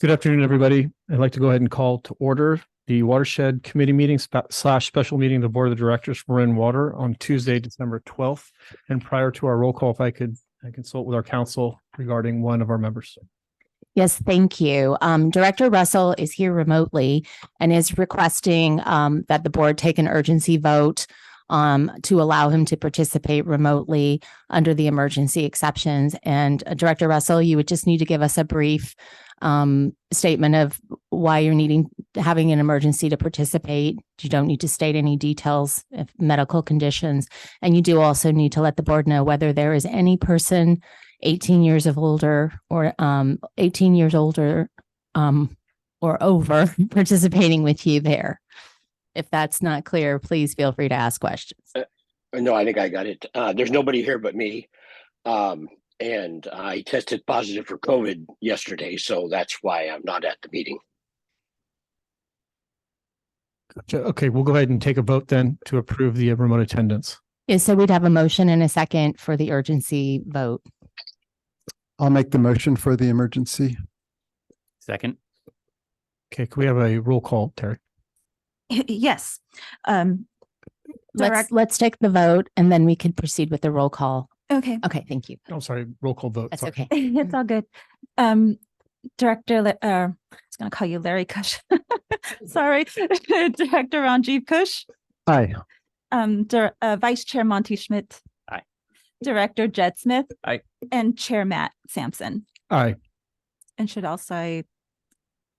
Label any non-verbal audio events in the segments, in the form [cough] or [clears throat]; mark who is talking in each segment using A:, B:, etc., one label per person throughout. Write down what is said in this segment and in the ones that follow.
A: Good afternoon, everybody. I'd like to go ahead and call to order the Watershed Committee meeting spa- slash special meeting of the Board of Directors for Marin Water on Tuesday, December twelfth. And prior to our roll call, if I could I consult with our council regarding one of our members.
B: Yes, thank you. Um, Director Russell is here remotely and is requesting um, that the board take an urgency vote um, to allow him to participate remotely under the emergency exceptions. And uh, Director Russell, you would just need to give us a brief um, statement of why you're needing, having an emergency to participate. You don't need to state any details of medical conditions. And you do also need to let the board know whether there is any person 18 years of older or um 18 years older um or over [laughs] participating with you there. If that's not clear, please feel free to ask questions.
C: No, I think I got it. Uh, there's nobody here but me. Um, and I tested positive for COVID yesterday, so that's why I'm not at the meeting.
A: Gotcha. Okay, we'll go ahead and take a vote then to approve the remote attendance.
B: Yeah, so we'd have a motion and a second for the urgency vote.
D: I'll make the motion for the emergency.
E: Second,
A: Okay, can we have a roll call, Terry?
F: [laughs] Yes. Um,
B: Let's
F: Direct-
B: let's take the vote and then we could proceed with the roll call.
F: okay, [laughs]
B: Okay, thank you.
A: I'm sorry, roll call vote.
B: That's
A: sorry.
B: okay.
F: it's all good. Um, Director, La- uh, I was gonna call you Larry Kush. [laughs] Sorry, [laughs] Director Ranjiv Kush,
D: Aye.
F: um, Dir- uh, Vice Chair Monty Schmidt.
E: Aye.
F: Director Jed Smith.
E: Aye.
F: And Chair Matt Sampson,
A: Aye.
F: and should also,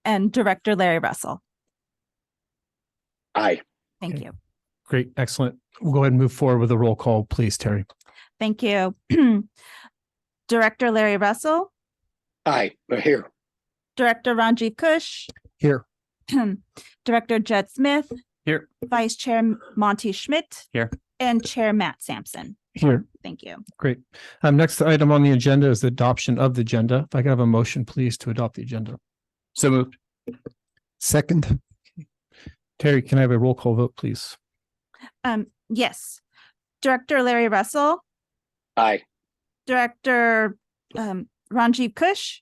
F: and Director Larry Russell.
C: I,
F: Thank
A: Okay.
F: you.
A: Great, excellent. We'll go ahead and move forward with the roll call, please, Terry.
F: Thank you. [clears throat] Director Larry Russell,
C: I, here,
F: Director Ranjiv Kush.
D: Here.
F: [clears throat] Director Jed Smith.
E: Here.
F: Vice Chair Monty Schmidt.
E: Here.
F: And Chair Matt Sampson.
A: Here.
F: Thank you.
A: Great. Um, next item on the agenda is the adoption of the agenda. If I could have a motion, please, to adopt the agenda.
E: so moved.
D: Second.
A: Terry, can I have a roll call vote, please?
F: Um, yes. Director Larry Russell,
C: I,
F: Director um Ranjiv Kush.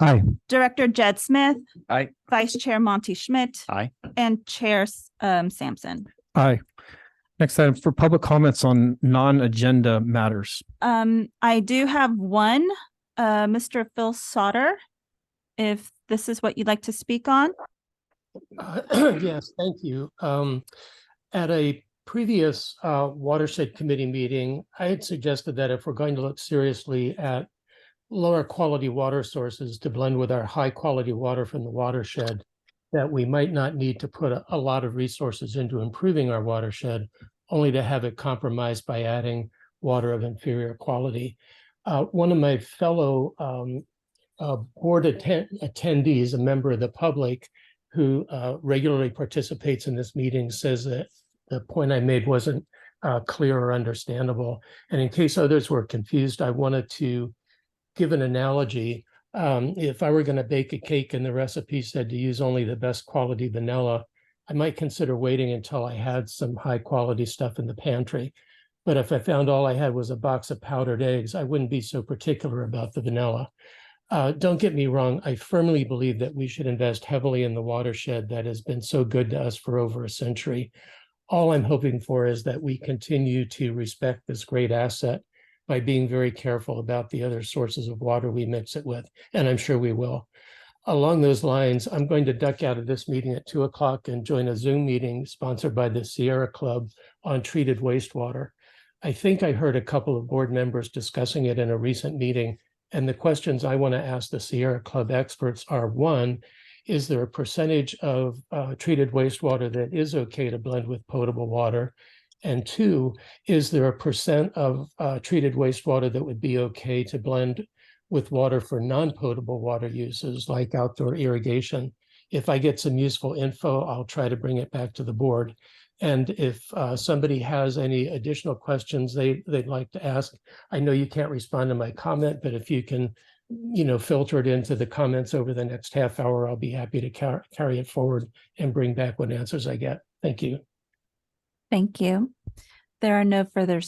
D: Aye.
F: Director Jed Smith.
E: Aye.
F: Vice Chair Monty Schmidt.
E: Aye.
F: And Chair um Sampson.
A: Aye. Next item for public comments on non-agenda matters.
F: Um, I do have one, uh, Mr. Phil Sauter. If this is what you'd like to speak on.
G: Uh, [clears throat] Yes, thank you. Um, At a previous uh, watershed committee meeting, I had suggested that if we're going to look seriously at lower quality water sources to blend with our high quality water from the watershed, that we might not need to put a- a lot of resources into improving our watershed, only to have it compromised by adding water of inferior quality. Uh, One of my fellow um, uh, board atten- attendees, a member of the public, who uh, regularly participates in this meeting says that the point I made wasn't uh, clear or understandable. And in case others were confused, I wanted to give an analogy. Um, If I were going to bake a cake and the recipe said to use only the best quality vanilla, I might consider waiting until I had some high quality stuff in the pantry. But if I found all I had was a box of powdered eggs, I wouldn't be so particular about the vanilla. Uh, don't get me wrong, I firmly believe that we should invest heavily in the watershed that has been so good to us for over a century. All I'm hoping for is that we continue to respect this great asset by being very careful about the other sources of water we mix it with, and I'm sure we will. Along those lines, I'm going to duck out of this meeting at two o'clock and join a Zoom meeting sponsored by the Sierra Club on treated wastewater. I think I heard a couple of board members discussing it in a recent meeting, and the questions I want to ask the Sierra Club experts are, one, is there a percentage of uh, treated wastewater that is okay to blend with potable water? And two, is there a percent of uh, treated wastewater that would be okay to blend with water for non-potable water uses like outdoor irrigation? If I get some useful info, I'll try to bring it back to the board. And if uh, somebody has any additional questions they, they'd like to ask, I know you can't respond to my comment, but if you can, you know, filter it into the comments over the next half hour, I'll be happy to car- carry it forward and bring back what answers I get. Thank you.
F: Thank you. There are no further